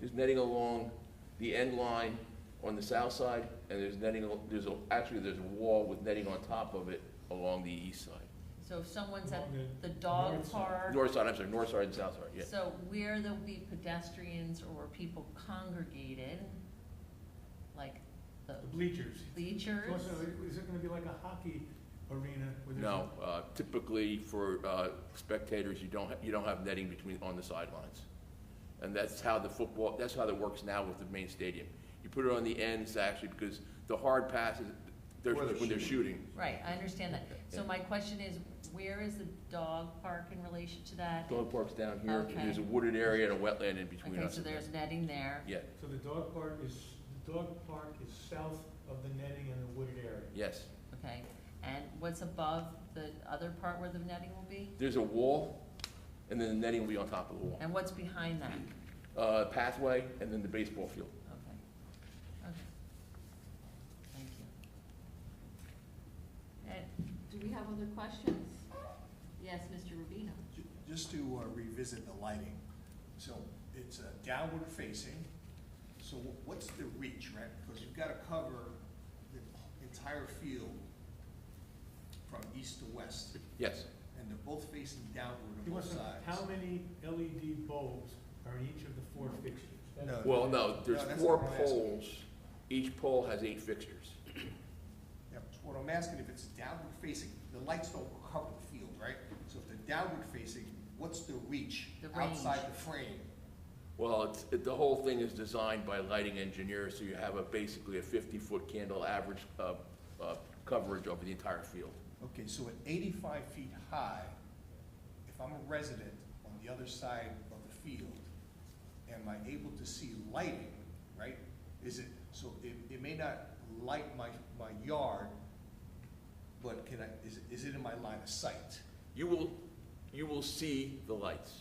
there's netting along the end line on the south side, and there's netting, al- there's, a- actually, there's a wall with netting on top of it along the east side. So if someone's at Along the the dog north side. park, North side, I'm sorry, north side and south side, yeah. so where there'll be pedestrians or where people congregated, like the The bleachers. bleachers? So is it- is it gonna be like a hockey arena? where there's No, uh, typically for uh, spectators, you don't, ha- you don't have netting between, on the sidelines. And that's how the football, that's how that works now with the main stadium. You put it on the ends actually because the hard passes, they're- Where they're when they're shooting. Right, I understand that. So Yeah. my question is, where is the dog park in relation to that? Dog park's down here, Okay. there's a wooded area and a wetland in between Okay, us. so there's netting there. Yeah, So the dog park is, the dog park is south of the netting and the wooded area. yes. Okay, and what's above the other part where the netting will be? There's a wall, and then the netting will be on top of the wall. And what's behind that? Uh, Pathway, and then the baseball field. Okay, okay. Thank you. And do we have other questions? Yes, Mr. Rubino? Ju- Just to uh, revisit the lighting, so it's uh, downward facing, so wh- what's the reach, right? Because you've got to cover the entire field from east to west, Yes, and they're both facing downward He on both wants to know how sides. many LED bulbs are in each of the four fixtures? That's- No. well, no, there's No, that's four not what I'm asking. poles, each pole has eight fixtures. Yep, so what I'm asking, if it's downward facing, the lights don't cover the field, right? So if they're downward facing, what's the reach The range. outside the frame? Well, it's, it, the whole thing is designed by lighting engineers, so you have a, basically a fifty-foot candle average, uh, uh, coverage over the entire field. Okay, so at eighty-five feet high, if I'm a resident on the other side of the field, am I able to see lighting, right? Is it, so it, it may not light my, my yard, but can I, is, is it in my line of sight? You will, you will see the lights.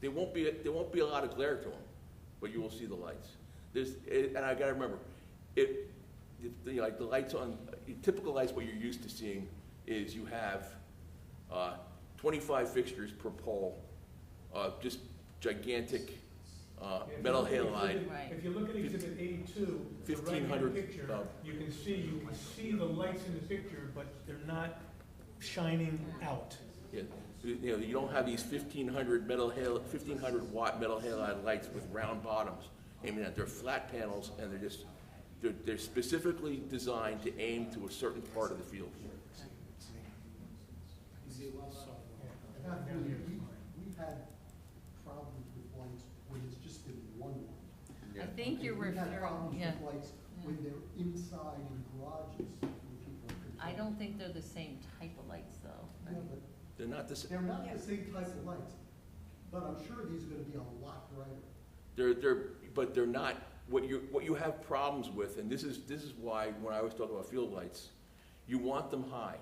There won't be, there won't be a lot of glare to them, but you will see the lights. There's, it- and I gotta remember, it, it- you know, like the lights on, typical lights, what you're used to seeing is you have, uh, twenty-five fixtures per pole, uh, just gigantic, uh, If you metal look at halide. exhibit- If you look at exhibit eighty-two, the right hand 1500 picture, bulb. you can see, you can see the lights in the picture, but they're not shining Mm. out. Yeah, you you know, you don't have these fifteen hundred metal hal, fifteen hundred watt metal halide lights with round bottoms aiming at, they're flat panels and they're just, they're, they're specifically designed to aim to a certain part of the field. And that really, we, we've had problems with lights when it's just been one light. I think you're We've had referring, problems yeah. with lights when they're inside in garages when people are controlling. I don't think they're the same type of lights, though. Yeah, but They're not the, s- they're not the same type of lights, but I'm sure these are gonna be a lot brighter. they're, they're, but they're not, what you, what you have problems with, and this is, this is why, when I always talk about field lights, you want them high,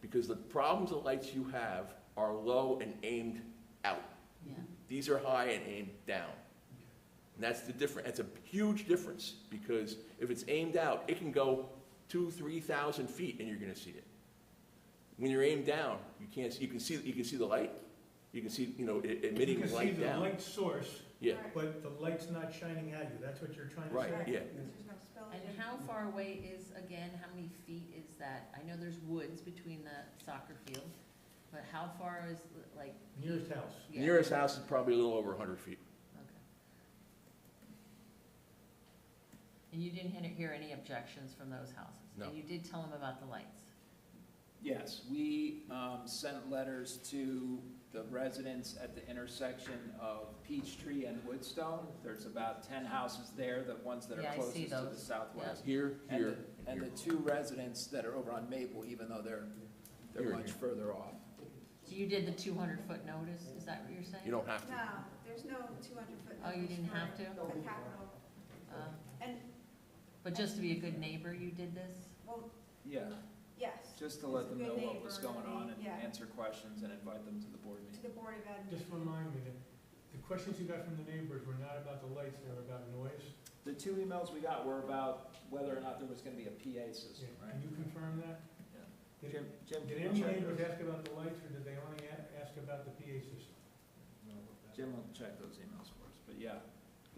because the problems the lights you have are low and aimed out. Yeah. These are high and aimed down. And that's the difference, that's a huge difference, because if it's aimed out, it can go two, three thousand feet and you're gonna see it. When you're aimed down, you can't, see- you can see, you can see the light, you can see, you know, i- emitting light You can see the down. light source, Yeah, but the light's not shining at you, that's what you're trying to say? right, yeah. And how far away is, again, how many feet is that? I know there's woods between the soccer field, but how far is, like? Nearest house. yeah, Nearest house is probably a little over hundred feet. okay. And you didn't hear- hear any objections from those houses? No. And you did tell them about the lights? Yes, we um, sent letters to the residents at the intersection of Peachtree and Woodstone. There's about ten houses there, the ones that Yeah, are I see closest to the those. southwest. Here, And the, here, and and the here. two residents that are over on Maple, even though they're, Here they're and much here. further off. So you did the two hundred foot notice, is that what you're saying? You don't have to. No, there's no two hundred foot. Oh, you didn't have to? The capital, Uh, and, But just to be a good neighbor, you did this? well, Yeah, yes, just to It's let a them good know what was neighbor, going on and yeah. answer questions and invite them to the to board meeting. the Board of Ed. Just remind me that the questions you got from the neighbors were not about the lights, they were about noise. The two emails we got were about whether or not there was gonna be a PA Yeah, system, Can right? you confirm that? Did- Jim, Jim, Did can any you check neighbors those? ask about the lights, or did they only a- ask about the PA system? Jim will check those emails for us, but yeah,